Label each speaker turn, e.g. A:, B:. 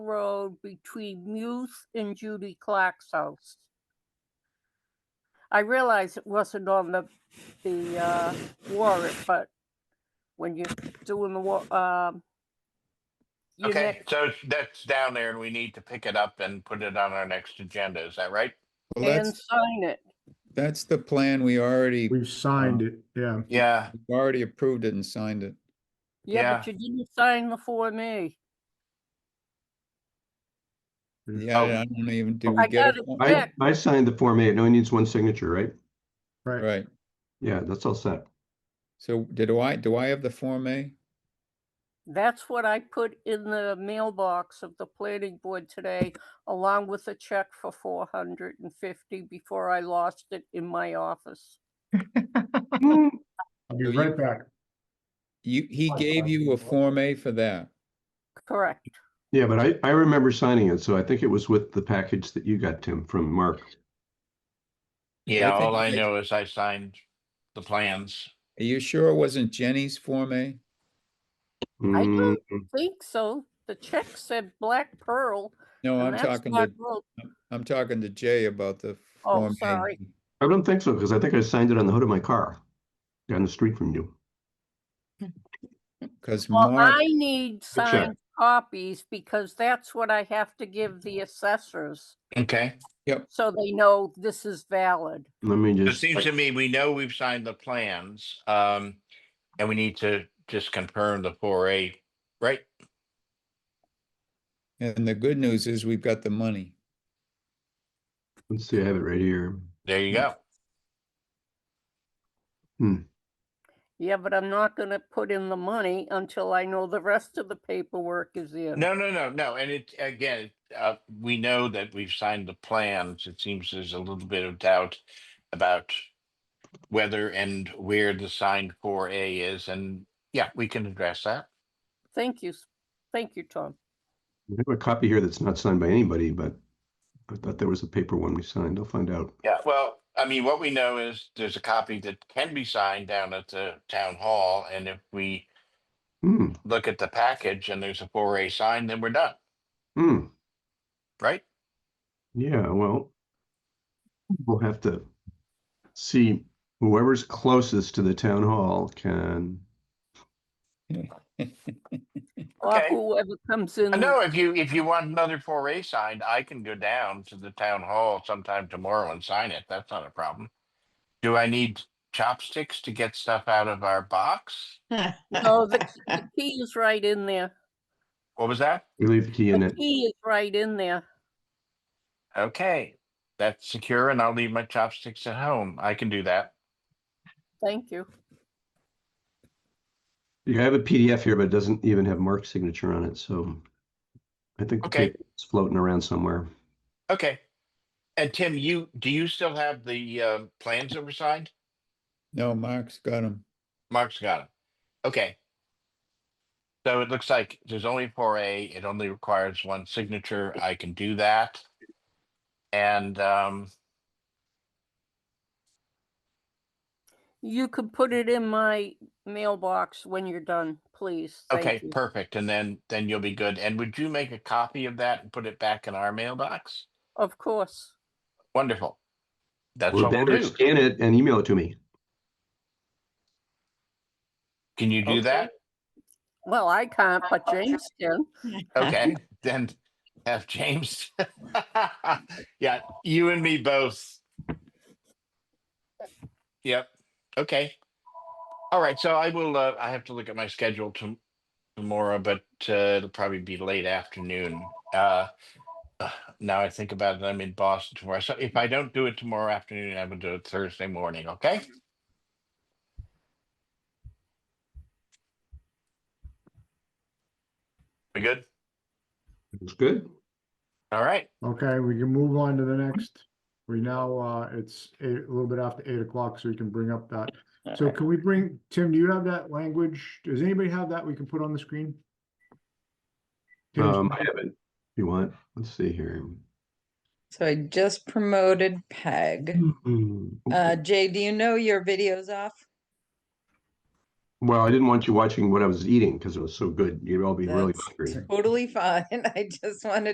A: Road between Muse and Judy Clark's house. I realize it wasn't on the, the, uh, warrant, but when you're doing the wa- um. your
B: Okay,
A: next-
B: so it's- that's down there and we need to pick it up and put it on our next agenda. Is that right?
C: Well,
A: And
C: that's,
A: sign it.
C: that's the plan. We already,
D: We've signed it, yeah.
B: Yeah,
C: we've already approved it and signed it.
A: Yeah, but you didn't sign the Form A.
D: Mhm.
C: Yeah, I
B: Oh.
C: don't even, do
A: I
C: we get
A: got
C: it?
A: it.
E: I,
A: Correct.
E: I signed the Form A. It only needs one signature, right?
D: Right,
C: Right.
E: Yeah, that's all set.
C: So did I, do I have the Form A?
A: That's what I put in the mailbox of the planning board today, along with a check for four hundred and fifty before I lost it in my office.
D: I'll
C: So
D: be
C: you-
D: right back.
C: You, he
D: I
C: gave
D: signed
C: you a
D: it.
C: Form A for that.
A: Correct.
E: Yeah, but I, I remember signing it, so I think it was with the package that you got, Tim, from Mark.
B: yeah, all I
C: think-
B: know is I signed the plans.
C: Are you sure it wasn't Jenny's Form A?
A: I
E: Mm,
A: don't think so. The check said Black Pearl.
C: No,
A: and
C: Oh, I'm
A: that's
C: talking
A: not
C: to,
A: real-
C: I'm talking to Jay about the
A: Oh,
C: Form A.
A: sorry.
E: I don't think so, because I think I signed it on the hood of my car down the street from you.
C: Because
A: Well,
C: Mark,
A: I need signed copies because that's what I have to give the assessors,
B: Okay,
A: so they know this is valid.
E: Let me
B: it
E: just,
B: seems to me, we know we've signed the plans, um, and we need to just confirm the four A, right?
C: and the good news is we've got the money.
E: let's see, I have it right here.
B: There you go.
A: Yeah, but I'm not gonna put in the money until I know the rest of the paperwork is in.
B: No, no, no, no, and it, again, uh, we know that we've signed the plans. It seems there's a little bit of doubt about whether and where the signed four A is, and yeah, we can address that.
A: Thank you. s- Thank you, Tom.
E: I have a copy here that's not signed by anybody, but I thought there was a paper one we signed. I'll find out.
B: Yeah, well, I mean, what we know is there's a copy that can be signed down at the town hall, and if we
E: Hmm,
B: look at the package and there's a four A sign, then we're done,
E: hmm,
B: right?
E: yeah, well, we'll have to see whoever's closest to the town hall can
A: Or
B: Okay.
A: whoever comes in.
B: I know if you, if you want another four A signed, I can go down to the town hall sometime tomorrow and sign it. That's not a problem. Do I need chopsticks to get stuff out of our box?
A: No, the key- the key is right in there.
B: What was that?
E: We leave the key in
A: The
E: it.
A: key is right in there.
B: Okay, that's secure and I'll leave my chopsticks at home. I can do that.
A: Thank you.
E: You have a PDF here, but it doesn't even have Mark's signature on it, so I think the
B: Okay.
E: paper is floating around somewhere.
B: Okay. And Tim, you, do you still have the uh, plans that were signed?
C: No, Mark's got him.
B: Mark's got them. Okay. So it looks like there's only four A. It only requires one signature. I can do that. And um,
A: You can put it in my mailbox when you're done, please. Thank
B: okay,
A: you.
B: perfect. And then then you'll be good. And would you make a copy of that and put it back in our mailbox?
A: Of course.
B: Wonderful. That's
E: Or
B: what we'll
E: better,
B: do.
E: scan it and email it to me.
B: Can you do
C: Okay.
B: that?
A: Well, I can't, but James can.
B: Okay, then have James. Yeah, you and me both. Yep, okay. All right, so I will, uh, I have to look at my schedule to tomorrow, but, uh, it'll probably be late afternoon. Uh, uh, now I think about it, I'm in Boston tomorrow, so if I don't do it tomorrow afternoon, I will do it Thursday morning, okay? We good?
E: It's good.
B: All right.
D: Okay, we can move on to the next. We now, uh, it's eight, a little bit after eight o'clock, so we can bring up that. So can we bring, Tim, do you have that language? Does anybody have that we can put on the screen? Tim's-
E: Um, I have it. If you want, let's see here.
F: So I just promoted Peg.
E: Mm,
F: Uh, Jay, do you know your video's off?
E: Well, I didn't want you watching what I was eating because it was so good. You'd all be really
F: That's
E: hungry.
F: Totally fine. I just wanted